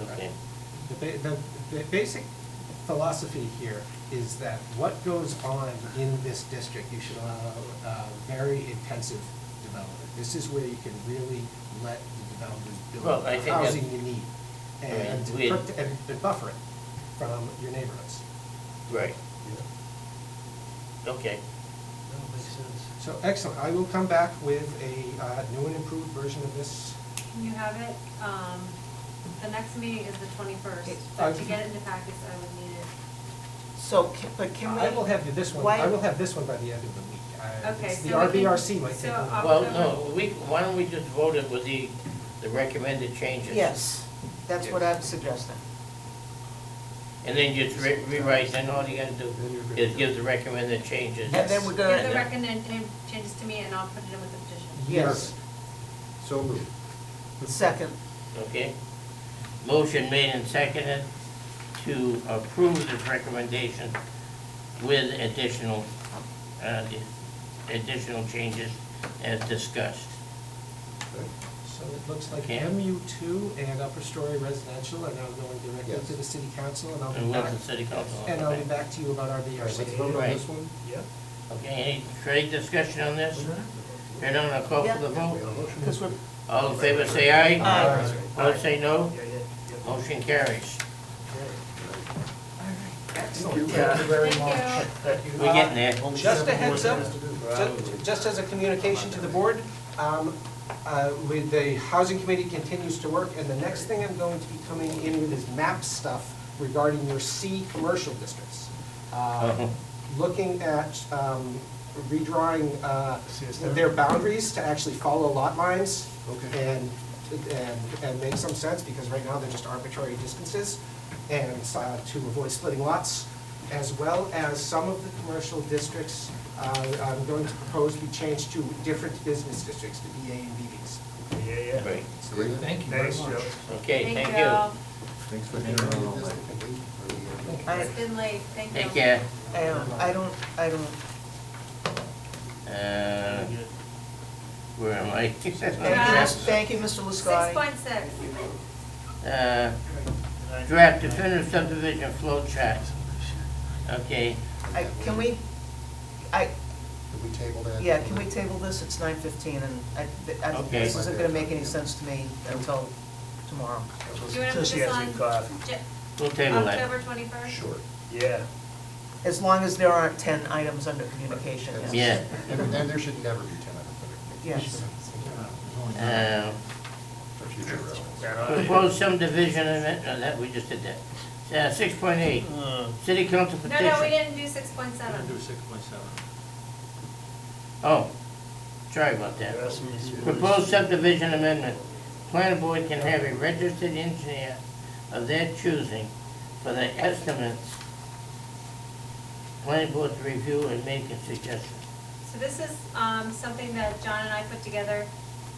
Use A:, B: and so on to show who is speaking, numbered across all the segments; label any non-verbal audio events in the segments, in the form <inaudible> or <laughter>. A: Okay.
B: The, ba- the, the basic philosophy here is that what goes on in this district, you should allow, uh, very intensive development. This is where you can really let the developers
A: Well,
B: build
A: I think
B: the
A: that-
B: housing you need and,
A: I mean, we-
B: prot- and and buffer it from your neighborhoods.
A: Right. Okay,
C: That makes sense.
B: So excellent, I will come back with a, uh, new and improved version of this.
D: Can you have it, um, the next meeting is the twenty-first,
E: Okay.
D: but to get it into packets, I would need it.
E: So, ca- but can we?
B: I will have you this one,
E: why-
B: I will have this one by the end of the week. I-
D: Okay,
B: it's The
D: so we can-
B: RBRC might
D: so
B: take a
D: I'll-
B: little.
A: well, no, we, why don't we just vote it with the, the recommended changes?
E: Yes, that's what I'm suggesting.
A: And then just re- rewrite, then all you gotta do
B: Then you're good.
A: is give the recommended changes.
E: And then we're
D: Give the
E: gonna,
D: recommended changes to me and I'll put it in with the petition.
E: yes,
F: So moved.
E: second,
A: Okay? Motion made and seconded to approve this recommendation with additional, uh, additional changes as discussed.
B: So it looks like
A: Okay.
B: MU two and upper story residential are now going directly
F: Yes.
B: to the city council, and I'll
A: And
B: be
A: with
B: back,
A: the city council.
B: and I'll be back to you about our
F: All right, let's
B: VRC.
F: vote on this one?
C: Yep.
A: Okay, any trade discussion on this?
E: Mm-hmm.
A: Hearing none, I'll call for the
F: We have
A: vote.
F: a motion.
E: because we're,
A: All in favor, say aye.
E: Aye.
A: All say no.
C: Yeah, yeah, yeah.
A: Motion carries.
F: Thank you.
C: Yeah.
D: Thank you.
A: We're getting there.
B: Just a heads up,
F: Probably.
B: ju- just as a communication to the board, um, uh, with the housing committee continues to work, and the next thing I'm going to be coming in with is map stuff regarding your C commercial districts.
A: Uh-huh.
B: Uh, Looking at um, redrawing uh,
C: CSW?
B: their boundaries to actually follow lot lines.
C: Okay.
B: And, and, and make some sense, because right now they're just arbitrary distances, and uh, to avoid splitting lots, as well as some of the commercial districts, uh, I'm going to propose we change to different business districts, to BA and BBs.
C: Yeah, yeah.
A: Great.
F: Great.
C: Thank you very much.
A: Okay, thank you.
F: Thanks for handling all that.
E: I,
D: It's been late, thank you.
A: Take care.
E: I don't, I don't, I don't,
A: Uh, Where am I? <laughs>
E: thank you, thank you, Mr.
D: Six
E: Liscotty.
D: point six.
A: Uh, Draft definitive subdivision flow chart. Okay,
E: I, can we, I,
F: Did we table that?
E: yeah, can we table this? It's nine fifteen, and I, I, think
A: Okay.
E: this isn't gonna make any sense to me until tomorrow.
D: Do you want to put
C: So she
D: this
C: has
D: on
C: good coffee.
D: Ja-
A: we'll table that.
D: October twenty-first?
F: Sure.
C: Yeah.
E: As long as there aren't ten items under communication, yes.
A: Yeah.
F: And and there should never be ten items.
E: Yes.
A: Uh,
F: For future reference.
C: Right on.
A: Proposed subdivision amendment, no, that, we just did that. Six point eight,
C: Uh,
A: city council
D: No, no, we
A: petition.
D: didn't do six point seven.
A: Oh, sorry about that.
C: there are some issues.
A: Proposed subdivision amendment, planning board can have a registered engineer of their choosing for the estimates. Planning board to review and make a suggestion.
D: So this is um, something that John and I put together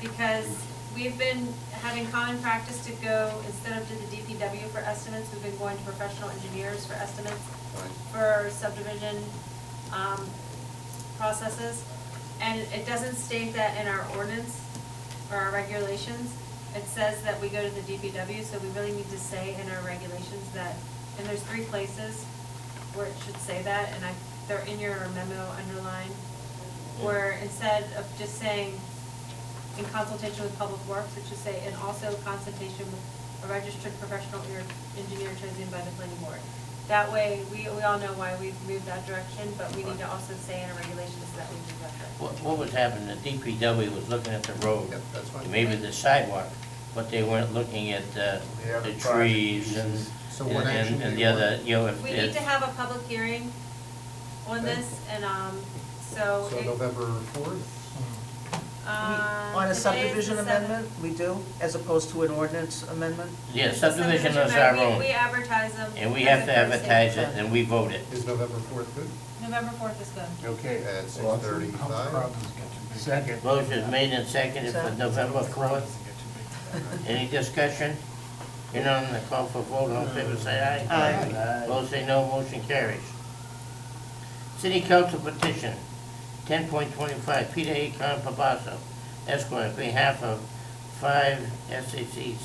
D: because we've been having common practice to go, instead of to the DPW for estimates, we've been going to professional engineers for estimates
F: Right.
D: for subdivision um, processes. And it doesn't state that in our ordinance or our regulations. It says that we go to the DPW, so we really need to say in our regulations that, and there's three places where it should say that, and I, they're in your memo underlined, where instead of just saying in consultation with Public Works, it should say, and also consultation with a registered professional ear- engineer chosen by the planning board. That way, we, we all know why we've moved that direction, but we need to also say in our regulations that we moved that direction.
A: What, what was happening, the DPW was looking at the road,
F: Yep, that's fine.
A: maybe the sidewalk, but they weren't looking at uh,
C: The other
A: the trees
C: project
A: and,
C: pieces.
F: So what action
A: and
F: do
A: and the
F: you want?
A: other, you know, if.
D: We need
A: if-
D: to have a public hearing on this, and, um, so.
F: So
D: it-
F: November fourth?
E: We-
D: uh,
E: On a
D: today is the
E: subdivision
D: seventh.
E: amendment, we do, as opposed to an ordinance amendment?
A: Yeah,
D: It's a
A: subdivision is our
D: amendment.
A: own,
D: We we advertise them.
A: and we
D: as
A: have
D: a
A: to
D: Thursday.
A: advertise it, and we vote it.
F: Is November fourth good?
D: November fourth is good.
C: Okay.
F: At six thirty-five?
C: Second.
A: Motion is made and seconded for
E: Sir?
A: November fourth. Any discussion? Hearing none, the call for vote, all in favor, say aye.
E: Aye.
A: Both say no, motion carries. City Council petition, ten point twenty-five, Peter A. Con Papasso, Esquire, on behalf of five SAC